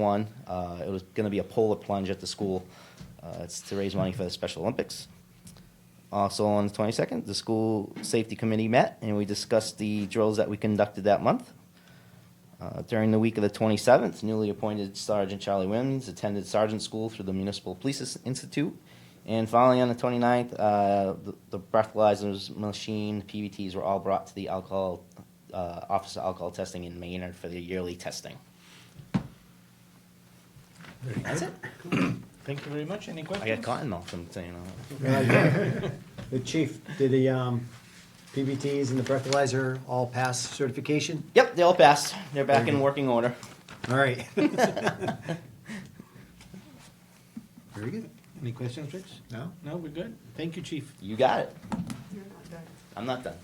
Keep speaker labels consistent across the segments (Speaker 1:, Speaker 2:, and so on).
Speaker 1: one. Uh, It was going to be a polar plunge at the school. Uh, It's to raise money for the Special Olympics. Also on the 22nd, the school safety committee met and we discussed the drills that we conducted that month. Uh, During the week of the 27th, newly appointed Sergeant Charlie Williams attended sergeant school through the Municipal Police Is- Institute. And finally, on the 29th, uh, the- the breathalyzers machine, PBTs were all brought to the alcohol, uh, Office of Alcohol Testing in Maynard for the yearly testing. That's it.
Speaker 2: Thank you very much. Any
Speaker 1: I
Speaker 2: questions?
Speaker 1: got cotton mouth from saying all that.
Speaker 3: The chief, did the um, PBTs and the breathalyzer all pass certification?
Speaker 1: Yep, they all passed. They're back
Speaker 3: Very
Speaker 1: in
Speaker 3: good.
Speaker 1: working order.
Speaker 3: All right. Very good.
Speaker 2: Any questions, Rich?
Speaker 3: No?
Speaker 2: No, we're good. Thank you, chief.
Speaker 1: You got it. I'm not done.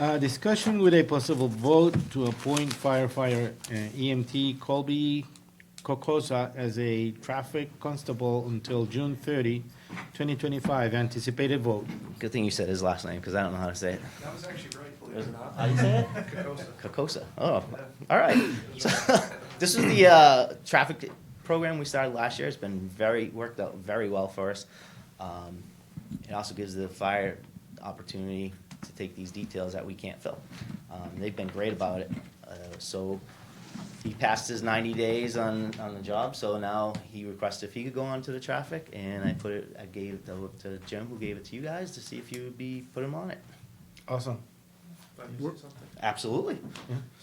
Speaker 2: Uh, discussion with a possible vote to appoint firefighter uh, EMT Colby Kokosa as a traffic constable until June 30, 2025. Anticipated vote.
Speaker 1: Good thing you said his last name because I don't know how to say it.
Speaker 4: That was actually right, believe it Uh, or not.
Speaker 1: How do you say it?
Speaker 4: Carcosa.
Speaker 1: Kokosa. Oh, all right. So, this is the uh, traffic program we started last year. It's been very worked out very well for us. Um, it also gives the fire opportunity to take these details that we can't fill. Um, they've been great about it. Uh, so he passed his 90 days on, on the job, so now he requested if he could go on to the traffic, and I put it, I gave it to- to Jim, who gave it to you guys, to see if you would be, put him on it.
Speaker 2: Awesome.
Speaker 4: Let me say something.
Speaker 1: Absolutely.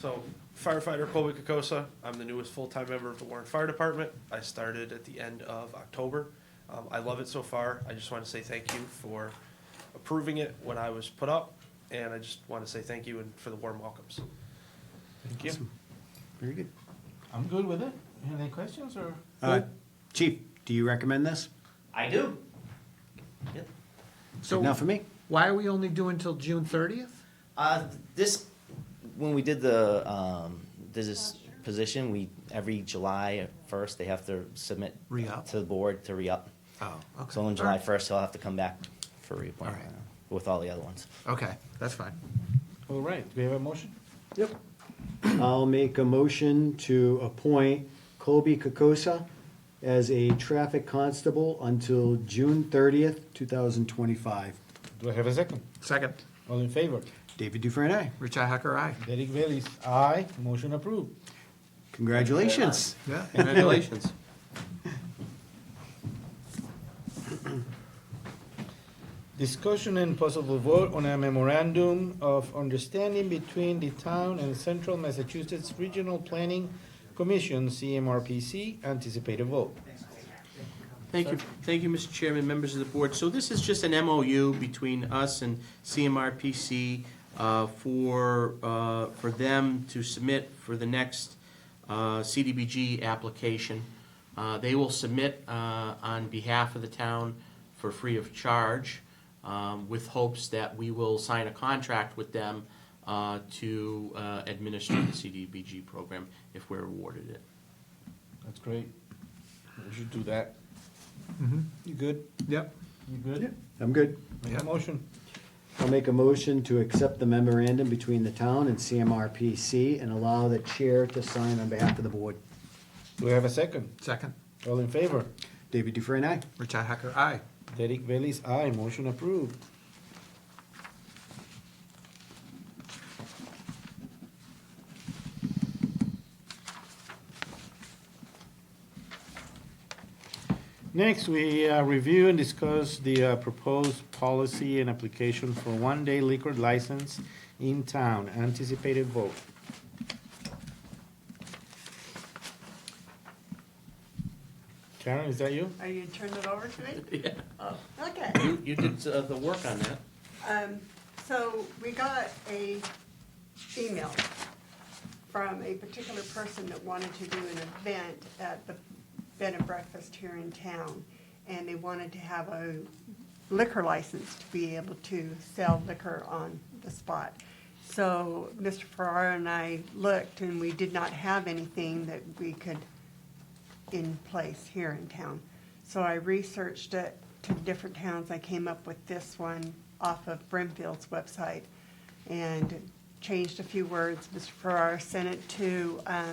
Speaker 4: So firefighter Colby Kokosa, I'm the newest full-time member of the Warren Fire Department. I started at the end of October. Um, I love it so far. I just want to say thank you for approving it when I was put up, and I just want to say thank you and for the warm welcomes.
Speaker 2: Thank you.
Speaker 3: Very good.
Speaker 2: I'm good with it. Any questions or?
Speaker 3: Uh, Chief, do you recommend this?
Speaker 1: I do. Yep.
Speaker 3: Good enough for
Speaker 5: So
Speaker 3: me?
Speaker 5: why are we only doing till June thirtieth?
Speaker 1: Uh, this, when we did the, um, there's this position, we, every July first, they have to submit.
Speaker 5: Re-up.
Speaker 1: To the board to re-up.
Speaker 5: Oh, okay.
Speaker 1: So on July first, he'll have to come back for reappointment
Speaker 5: Alright.
Speaker 1: with all the other ones.
Speaker 5: Okay, that's fine.
Speaker 2: All right. Do we have a motion?
Speaker 3: Yep. I'll make a motion to appoint Colby Kokosa as a traffic constable until June thirtieth, two thousand twenty-five.
Speaker 2: Do I have a second?
Speaker 5: Second,
Speaker 2: All in favor?
Speaker 3: David Dufresne, aye.
Speaker 5: Richi Hacker, aye.
Speaker 2: Derek Bailey's aye. Motion approved.
Speaker 3: Congratulations.
Speaker 5: Yeah, congratulations.
Speaker 2: Discussion and possible vote on a memorandum of understanding between the town and Central Massachusetts Regional Planning Commission, CMRPC, anticipated vote.
Speaker 6: Thank you, thank you, Mr. Chairman, members of the board. So this is just an MOU between us and CMRPC uh, for, uh, for them to submit for the next uh, CDBG application. Uh, They will submit uh, on behalf of the town for free of charge um, with hopes that we will sign a contract with them uh, to uh, administer the CDBG program if we're awarded it.
Speaker 2: That's great. We should do that. You good?
Speaker 5: Yep.
Speaker 2: Mm-hmm. You good?
Speaker 3: I'm good.
Speaker 2: Make a
Speaker 5: Yeah.
Speaker 2: motion.
Speaker 3: I'll make a motion to accept the memorandum between the town and CMRPC and allow the chair to sign on behalf of the board.
Speaker 2: Do we have a second?
Speaker 5: Second,
Speaker 2: All in favor?
Speaker 3: David Dufresne, aye.
Speaker 5: Richi Hacker, aye.
Speaker 2: Derek Bailey's aye. Motion approved. Next, we uh, review and discuss the uh, proposed policy and application for one-day liquor license in town. Anticipated vote. Karen, is that you?
Speaker 7: Are you turning it over to me? Oh,
Speaker 6: Yeah.
Speaker 7: Okay,
Speaker 6: You, you did uh, the work on that.
Speaker 7: um, so we got a email from a particular person that wanted to do an event at the bed and breakfast here in town. And they wanted to have a liquor license to be able to sell liquor on the spot. So Mr. Ferrara and I looked and we did not have anything that we could in place here in town. So I researched it to different towns. I came up with this one off of Brimfield's website and changed a few words. Mr. Farrar sent it to, um,